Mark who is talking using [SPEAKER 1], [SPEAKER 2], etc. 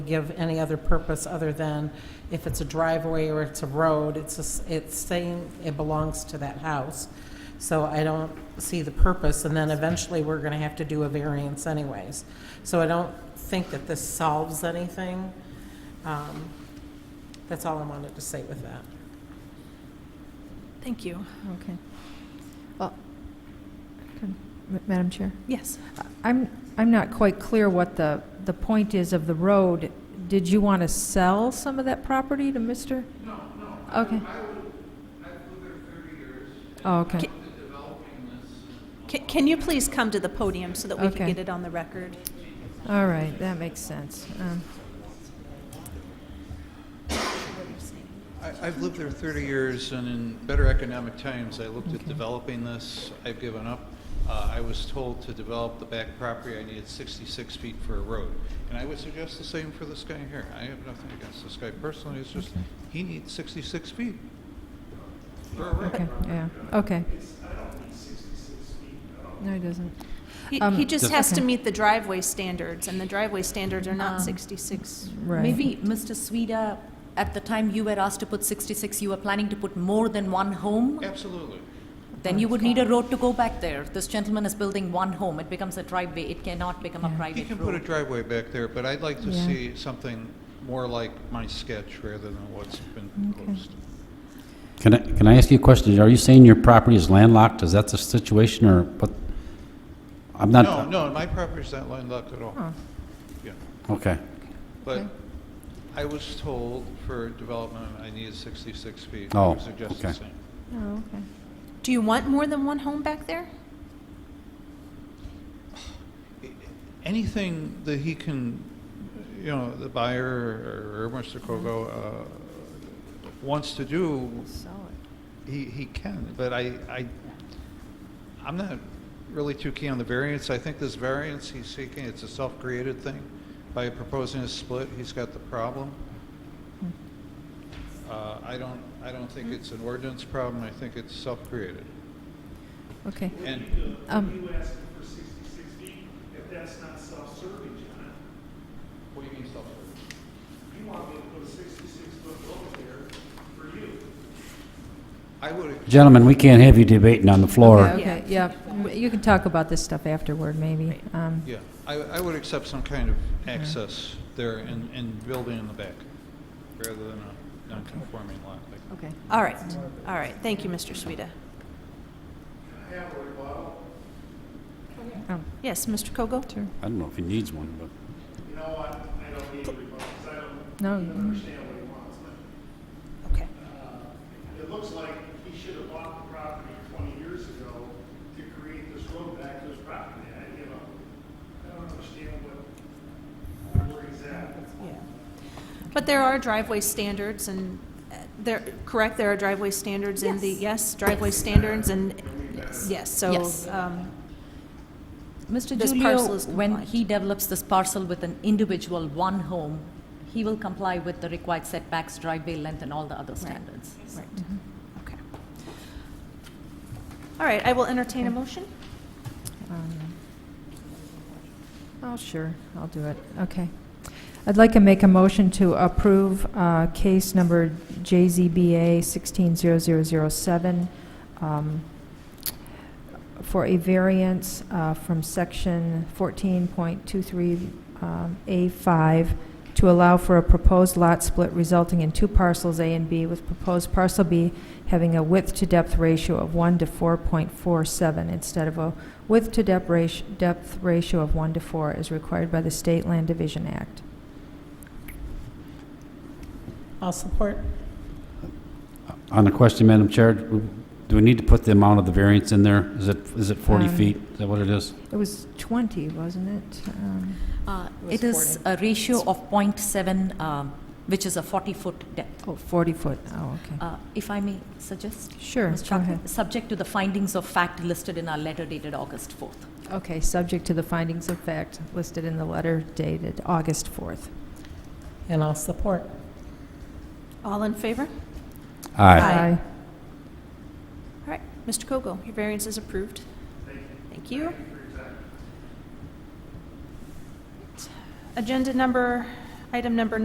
[SPEAKER 1] give any other purpose other than if it's a driveway or it's a road, it's, a s- it's saying it belongs to that house. So I don't see the purpose, and then eventually we're gonna have to do a variance anyways. So I don't think that this solves anything. Um, That's all I wanted to say with that.
[SPEAKER 2] Thank you.
[SPEAKER 3] Okay. Well, can- Ma- Madam Chair,
[SPEAKER 2] Yes.
[SPEAKER 3] I- I'm, I'm not quite clear what the, the point is of the road. Did you want to sell some of that property to Mr.? No, no. Okay. Oh, okay.
[SPEAKER 2] Ca- Ca- Can you please come to the podium so that we can
[SPEAKER 3] Okay.
[SPEAKER 2] get it on the record?
[SPEAKER 3] All right, that makes sense. Um,
[SPEAKER 4] I- I've lived there 30 years, and in better economic times, I looked at developing this. I've given up. Uh, I was told to develop the back property, I needed 66 feet for a road. And I would suggest the same for this guy here. I have nothing against this guy personally, it's just, he needs 66 feet.
[SPEAKER 3] Okay, yeah, okay. No, it doesn't.
[SPEAKER 2] He
[SPEAKER 3] Um,
[SPEAKER 2] he just has to
[SPEAKER 3] Okay.
[SPEAKER 2] meet the driveway standards, and the driveway standards are
[SPEAKER 3] Um.
[SPEAKER 2] not 66.
[SPEAKER 3] Right.
[SPEAKER 5] Maybe, Mr. Sweda, at the time you were asked to put 66, you were planning to put more than one home?
[SPEAKER 4] Absolutely.
[SPEAKER 5] Then you would need a road to go back there. This gentleman is building one home, it becomes a driveway, it cannot become a
[SPEAKER 3] Yeah.
[SPEAKER 4] He
[SPEAKER 5] private
[SPEAKER 4] can put a
[SPEAKER 5] road.
[SPEAKER 4] driveway back there, but I'd like to
[SPEAKER 3] Yeah.
[SPEAKER 4] see something more like my sketch rather than what's been proposed.
[SPEAKER 6] Can I, can I ask you a question? Are you saying your property is landlocked? Is that the situation, or what? I'm not...
[SPEAKER 4] No, no, my property's not landlocked at all.
[SPEAKER 3] Oh.
[SPEAKER 4] Yeah.
[SPEAKER 6] Okay.
[SPEAKER 4] But
[SPEAKER 3] Okay.
[SPEAKER 4] I was told for development, I needed 66 feet.
[SPEAKER 6] Oh,
[SPEAKER 4] I would suggest the
[SPEAKER 6] okay.
[SPEAKER 4] same.
[SPEAKER 3] Oh, okay.
[SPEAKER 2] Do you want more than one home back there?
[SPEAKER 4] Anything that he can, you know, the buyer or or Mr. Kogo uh, wants to do,
[SPEAKER 3] Sell it.
[SPEAKER 4] he he can, but I, I, I'm not really too keen on the variance. I think this variance he's seeking, it's a self-created thing. By proposing a split, he's got the problem. Uh, I don't, I don't think it's an ordinance problem, I think it's self-created.
[SPEAKER 3] Okay.
[SPEAKER 4] And uh,
[SPEAKER 3] Um,
[SPEAKER 7] You asked him for 66 feet, if that's not self-serving, John,
[SPEAKER 4] What do you mean self-serving?
[SPEAKER 7] you want me to put a 66-foot road there for you.
[SPEAKER 4] I would,
[SPEAKER 6] Gentlemen, we can't have you debating on the
[SPEAKER 3] yeah,
[SPEAKER 6] floor.
[SPEAKER 3] okay, yeah. Mm, You can talk about this stuff afterward, maybe. Um,
[SPEAKER 4] yeah, I, I would accept some kind of access there and, and building in the back, rather than a non-conforming lot. like-
[SPEAKER 3] Okay.
[SPEAKER 2] All right, all right. Thank you, Mr. Sueda.
[SPEAKER 3] Um,
[SPEAKER 2] Yes, Mr. Kogo?
[SPEAKER 3] Sure.
[SPEAKER 6] I don't know if he needs one, but...
[SPEAKER 7] You know what, I don't need a rebuttal, 'cause I don't
[SPEAKER 3] No,
[SPEAKER 7] understand what he wants, but uh,
[SPEAKER 2] Okay.
[SPEAKER 7] it looks like he should have bought the property 20 years ago to create this road back to his property, I, you know, I don't understand what, where he's at.
[SPEAKER 2] Yeah. But there are driveway standards and uh, there, correct, there are driveway standards in the, yes, driveway standards and, yes, so,
[SPEAKER 5] Yes.
[SPEAKER 2] um,
[SPEAKER 5] Mr.
[SPEAKER 2] This parcel
[SPEAKER 5] Julio,
[SPEAKER 2] is
[SPEAKER 5] when
[SPEAKER 2] compliant.
[SPEAKER 5] he develops this parcel with an individual one home, he will comply with the required setbacks, driveway length, and all the other standards.
[SPEAKER 2] Right, okay. All right, I will entertain a motion.
[SPEAKER 3] Um, Oh, sure, I'll do it, okay. I'd like to make a motion to approve uh, case number JZBA 160007 um, for a variance uh, from section 14.23A5 um, to allow for a proposed lot split resulting in two parcels A and B, with proposed parcel B having a width-to-depth ratio of 1 to 4.47 instead of a width-to-depth ratio, depth ratio of 1 to 4 as required by the State Land Division Act.
[SPEAKER 1] I'll support.
[SPEAKER 6] On the question, Madam Chair, do we need to put the amount of the variance in there? Is it, is it 40
[SPEAKER 3] Um,
[SPEAKER 6] feet? Is that what it is?
[SPEAKER 3] It was 20, wasn't it? Um,
[SPEAKER 5] Uh, It is a ratio of 0.7, um, which is a 40-foot depth.
[SPEAKER 3] Oh, 40 foot, oh, okay.
[SPEAKER 5] Uh, If I may suggest?
[SPEAKER 3] Sure,
[SPEAKER 5] Ms.
[SPEAKER 3] go
[SPEAKER 5] Chapman,
[SPEAKER 3] ahead.
[SPEAKER 5] Subject to the findings of fact listed in our letter dated August 4th.
[SPEAKER 3] Okay, subject to the findings of fact listed in the letter dated August 4th.
[SPEAKER 1] And I'll support.
[SPEAKER 2] All in favor?
[SPEAKER 6] Aye.
[SPEAKER 2] Aye. All right, Mr. Kogo, your variance is approved. Thank you. Agenda number Item number